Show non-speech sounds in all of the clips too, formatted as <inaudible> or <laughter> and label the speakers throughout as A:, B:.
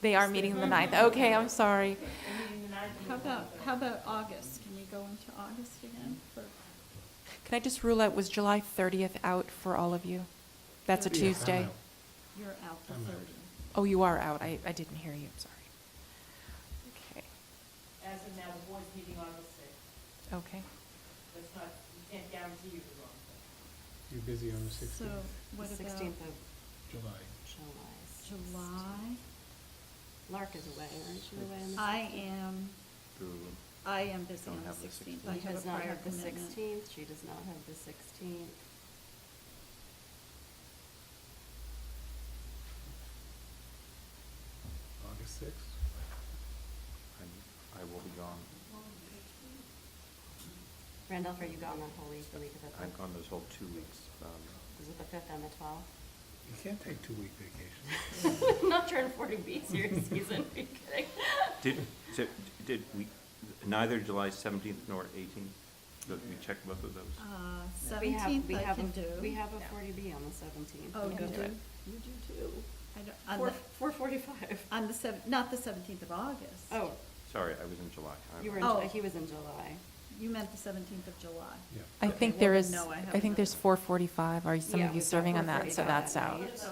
A: They are meeting the ninth. Okay, I'm sorry.
B: How about, how about August? Can we go into August again for,
A: Can I just rule out, was July 30th out for all of you? That's a
C: Yeah, I'm
A: Tuesday.
C: out.
B: you're out the
C: I'm out.
B: thirty?
A: Oh, you are out. I, I didn't hear you, I'm sorry.
D: As of now, the board's meeting August sixth.
A: Okay, okay.
D: That's not, you can't guarantee you the wrong thing.
C: You're busy on the sixteenth,
B: So what
E: The
B: about
E: sixteenth of
C: July.
E: July.
B: July?
E: Lark is away, aren't you away on the?
B: I am,
F: Through-
B: I am busy
F: Don't
B: on the
F: have the
B: sixteenth.
F: 16th.
B: I
E: He
B: have a
E: does not
B: prior
E: have the
B: commitment.
E: sixteenth, she does not have the sixteenth.
C: August sixth?
F: I'm- I will be gone.
E: Randolph, are you gone that whole week, the week of the 5th
F: I'm gone those whole two weeks. um,
E: Is it the fifth and the twelfth?
C: You can't take two-week vacation.
E: <laughs> Not during forty B series <laughs> season, are you kidding?
F: Did, so, did we, neither July 17th nor 18th, but we checked both of those?
B: Uh,
E: We have-
B: seventeenth
E: we
B: I
E: have a-
B: can do.
E: We have a forty B on the seventeenth.
B: Oh, you
A: can do
B: do?
A: it.
E: You do too.
B: I don't, on
E: Four,
B: the,
E: four forty-five.
B: on the seven, not the seventeenth of August.
E: Oh,
F: Sorry, I was in July. I
E: you were, in
B: Oh.
E: Ju- he was in July.
B: You meant the seventeenth of July.
C: Yeah.
A: I
B: Okay,
A: think
B: well
A: there
B: then,
A: is,
B: no, I
A: I
B: have
A: think there's
B: another-
A: 4:45. Are some
E: Yeah,
A: of you
E: we've got
A: serving on that? So
E: 4:45
A: that's
E: that
A: out.
E: night.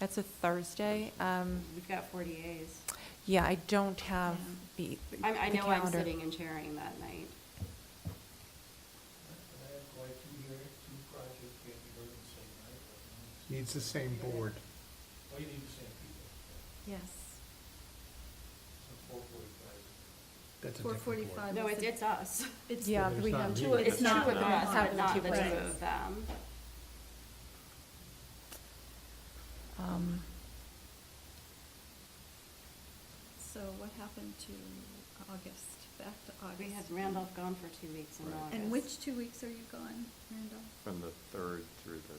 A: That's a Thursday. Um,
E: We've got forty As.
A: Yeah, I don't have the the
E: I, I know I'm
A: calendar.
E: sitting and chairing that night.
G: I have like two years, two projects can't be heard the same night. but-
C: Needs the same board.
G: Well, you need the same people,
B: Yes.
G: so four forty-five.
C: That's a different board.
B: 4:45.
E: No, it's, it's us.
B: Oh, It's
A: Yeah,
C: But
A: we
C: it's
A: have
C: not
A: two,
C: me.
E: It's
A: it's
E: two
A: not
E: of
A: on,
E: us, but
A: having
E: not
A: two
E: the two
B: right.
A: places.
E: of them.
A: Um,
B: So what happened to August, back to August?
E: We had Randolph gone for two weeks in
F: Right.
E: August.
B: And which two weeks are you gone, Randolph?
F: From the 3rd through the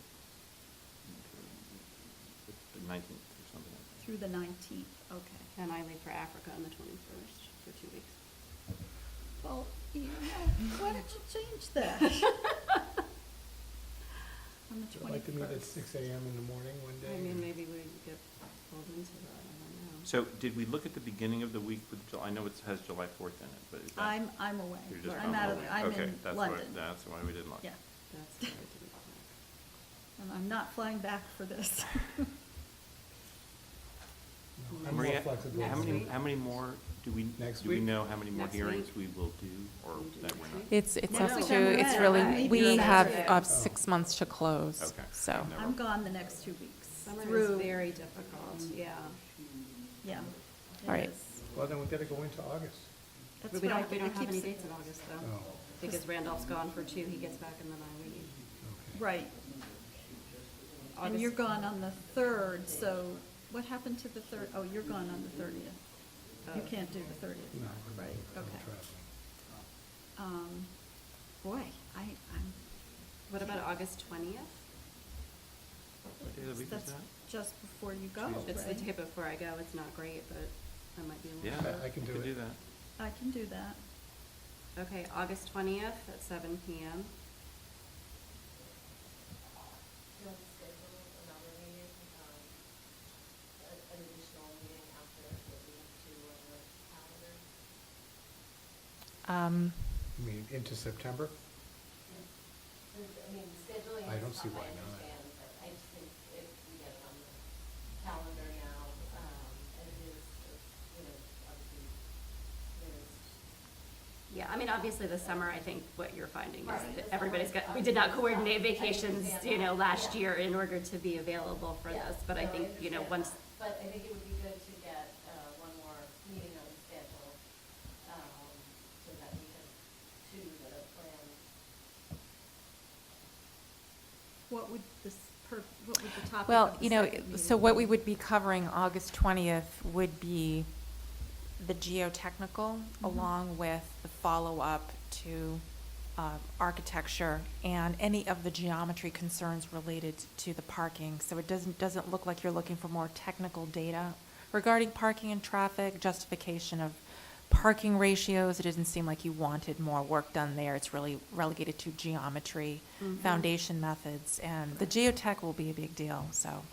F: the 19th or something like that.
B: Through the nineteenth, okay.
E: And I leave for Africa on the twenty-first for two weeks.
B: Well, you know, why don't you change that? <laughs> On the
C: I'd like to meet at six
B: 21st.
C: AM in the morning one day.
E: I mean, maybe we get pulled into that, I don't know.
F: So did we look at the beginning of the week with, July? I know it has July 4th in it, but is that?
B: I'm, I'm away.
F: you're just
B: I'm out of,
F: probably-
B: I'm
F: okay,
B: in
F: that's why-
B: London.
F: That's why we didn't look.
B: Yeah,
E: That's what I didn't think.
B: and I'm not flying back for this.
C: No, I'm more
F: Maria,
C: flexible.
F: how
C: than
F: many,
C: that.
F: how many more, do we,
C: Next
F: do we
C: week?
F: know how many more
E: Next
F: hearings
E: week?
F: we will do, or
E: We'll do
F: that
E: next
F: we're not?
E: week.
A: It's, it's
B: Next
A: up
B: week
A: to,
B: I'm away.
A: it's
B: I'm
A: really,
B: leaving
A: we
B: on
A: have
B: Saturday.
A: uh,
C: Oh.
A: six months to close,
F: Okay.
A: so.
F: No.
B: <laughs> I'm gone the next two weeks.
E: Summer is
B: through- Mm-hmm.
E: very difficult, yeah.
B: Yeah. it
A: All right.
B: is.
C: Well, then we gotta go into August.
B: That's
E: But we
B: what I
E: don't, we
B: keep- I
E: don't have
B: keep
E: any
B: saying.
E: dates in August
C: Oh,
E: though, because Randolph's gone for two, he gets back in the bye week.
C: okay.
B: Right, and
E: August-
B: you're gone on the third, so what happened to the third? Oh, you're gone on the thirtieth. You
E: Oh.
B: can't do the thirtieth.
C: No, I'm-
B: Right,
C: I'm
B: okay.
C: traveling.
B: Um, boy, I, I'm,
E: What about August twentieth?
F: What day of the week is
B: that's
F: that?
B: just before you go,
F: Tuesday.
E: It's the day
B: right?
E: before I go, it's not great, but I might be able to.
F: Yeah.
C: I- I can
F: we
C: do
F: could
C: it.
F: Do that.
B: I can do that.
E: Okay, August twentieth at seven PM.
D: You'll schedule another meeting, um, a- an additional meeting after that we have to, uh, calendar.
A: Um,
C: You mean into September?
D: I mean, scheduling.
C: I
D: is
C: don't see
D: tough,
C: why not.
D: I understand, but I just think if we get it on the calendar now, um, and it is, it's, you know, obviously, there is
E: Yeah, I mean, obviously this summer, I think what you're finding is
D: Right. Um,
E: that everybody's got, we did not coordinate vacations, you know, last year in order to be available for
D: Yeah,
E: this, but I
D: no,
E: think, you know,
D: understand that.
E: once,
D: But I think it would be good to get, uh, one more meeting on the schedule, um, so that we can do the plan.
B: What would this, per, what would the topic of
A: Well,
B: the
A: you know,
B: second
A: so
B: meeting
A: what
B: be?
A: we would be covering August 20th would be the geotechnical
B: Mhm.
A: along with the follow-up to uh, architecture and any of the geometry concerns related to the parking. So it doesn't, doesn't look like you're looking for more technical data regarding parking and traffic, justification of parking ratios. It doesn't seem like you wanted more work done there. It's really relegated to geometry,
E: Mhm.
A: foundation methods, and the geotech will be a big deal, so.